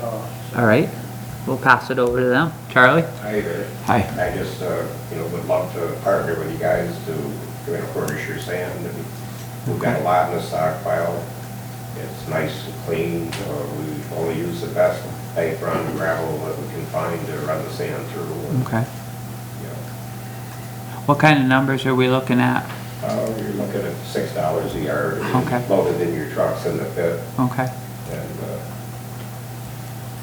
All right, we'll pass it over to them. Charlie? Hi there. Hi. I just, uh, you know, would love to partner with you guys to, you know, furnish your sand. and We've got a lot in the stockpile. It's nice and clean. Uh, We only use the best bank run gravel that we can find to run the sand through. Okay. You know, What kind of numbers are we looking at? Uh, You're looking at six dollars a yard. Okay. Loaded in your trucks in the pit. Okay, And, uh,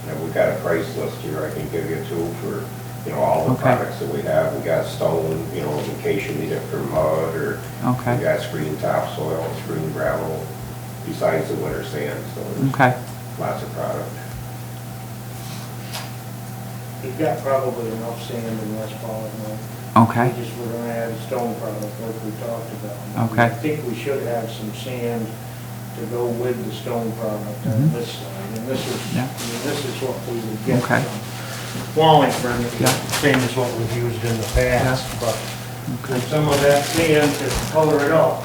you know, we've got a price list here I can give you too for, you know, all the Okay. products that we have. We got stone, you know, in case you need it for mud or we okay, got screen topsoil, screen gravel, besides the winter sand, so there's okay. lots of product. We've got probably enough sand in West Pollock now. Okay. We just were gonna add a stone product like we talked about. Okay. I think we should have some sand to go with the stone product on Mhm. this side, and this is, Yeah. I mean, this is what we would get Okay. from Wallingford, Yeah. same as what we've used in the past, but Okay. with some of that sand to color it up.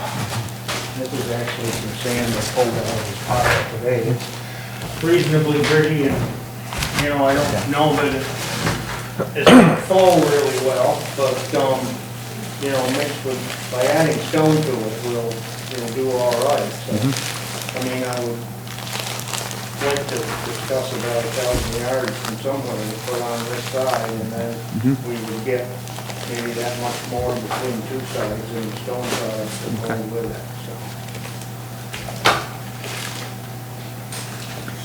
This is actually some sand that pulled out of this pile today. It's reasonably gritty and you know, I don't know that it- it's gonna fall really well, but, um, you know, mixed with, by adding stone to it, we'll, it'll do all right, so. I mean, I would like to discuss about a thousand yards from somewhere to put on this side, and then we would get maybe that much more between two sides and the stone sides to go Okay. with it, so.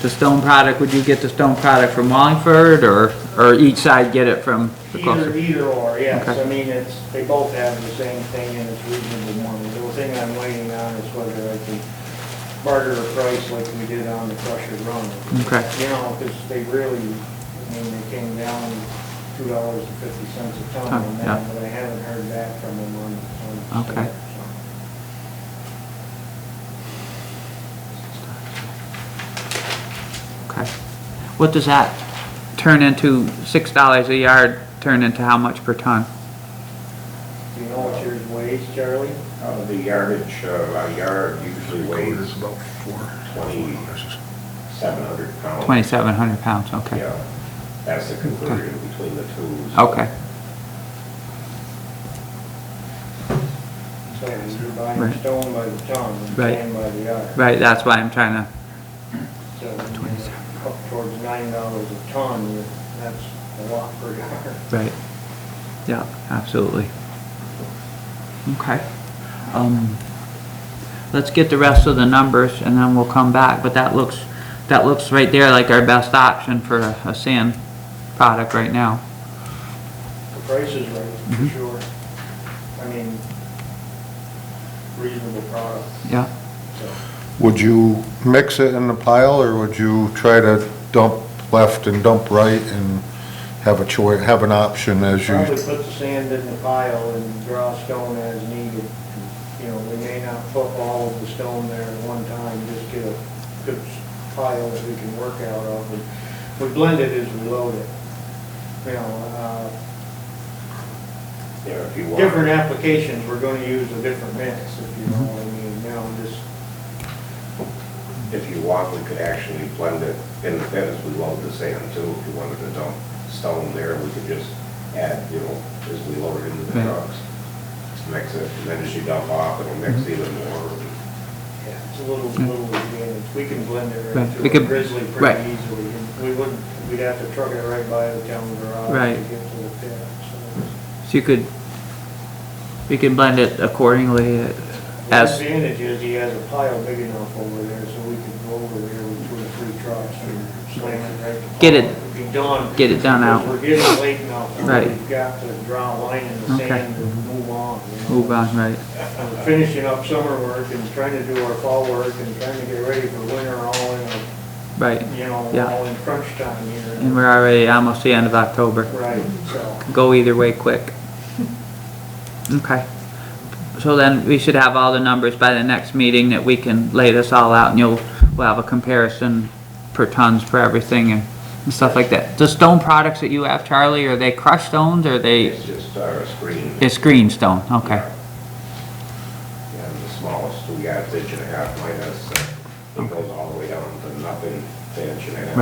The stone product, would you get the stone product from Wallingford or, or each side get it from the Either, closer? either or, yes, Okay. I mean, it's, they both have the same thing and it's reasonable money. The thing I'm waiting on is whether I can barter a price like we did on the crusher run. Okay. You know, because they really, I mean, they came down two dollars and fifty cents a ton Ton, on Oh, yeah. that, but I haven't heard back from them on, on. the Okay. sale, so. Okay. What does that turn into, six dollars a yard turn into how much per ton? Do you know what yours weighs, Charlie? Uh, The yardage, uh, a yard usually weighs It's about four. Twenty. seven hundred pounds. Twenty-seven hundred pounds, okay. Yeah, that's the conclusion between the two. so- Okay, So you're buying Right. stone by the ton and Right. sand by the yard. right, that's why I'm trying to, So, you know, up towards nine dollars a ton, you- that's a lot per yard. right. Yeah, absolutely. Okay. Um, let's get the rest of the numbers and then we'll come back, but that looks, that looks right there like our best option for a- a sand product right now. The price is right, for Mhm. sure. I mean, reasonable product, Yeah, so. Would you mix it in the pile, or would you try to dump left and dump right and have a choice, have an option as you? Probably put the sand in the pile and draw stone as needed. You know, we may not put all of the stone there at one time, just get a good pile that we can work out of. And We blend it as we load it. You know, uh, You know, if you want. different applications, we're gonna use a different mix, if you know what I mean, you know, just, If you want, we could actually blend it in the pit as we load the sand too. If you wanted to dump stone there, we could just add, you know, as we load it into the Right. trucks. Mix it, and then as you dump off, it'll mix Mm-hmm. even more. yeah, it's a little, little advantage. We can blend it Right, right Mm-hmm. we through could- a grizzly right. pretty easily. and We wouldn't, we'd have to truck it right by the town garage to Right. get to the pit, so. so you could, you can blend it accordingly uh, The as, advantage is he has a pile big enough over there, so we could go over there with two or three trucks and slam it right. to the Get it- pile. Be done. get it done out. Because We're getting late now. so Right. We've got to draw a line in the Okay. sand and move on, you know. move on, right? I'm finishing up summer work and trying to do our fall work and trying to get ready for winter all in, a- Right, you know, Yeah. all in crunch time and here. we're already almost the end of October. Right, so, Go either way quick. Okay. So then we should have all the numbers by the next meeting that we can lay this all out and you'll, we'll have a comparison per tons for everything and and stuff like that. The stone products that you have, Charlie, are they crushed stones or are they, It's just our uh, screen. it's green stone? Okay,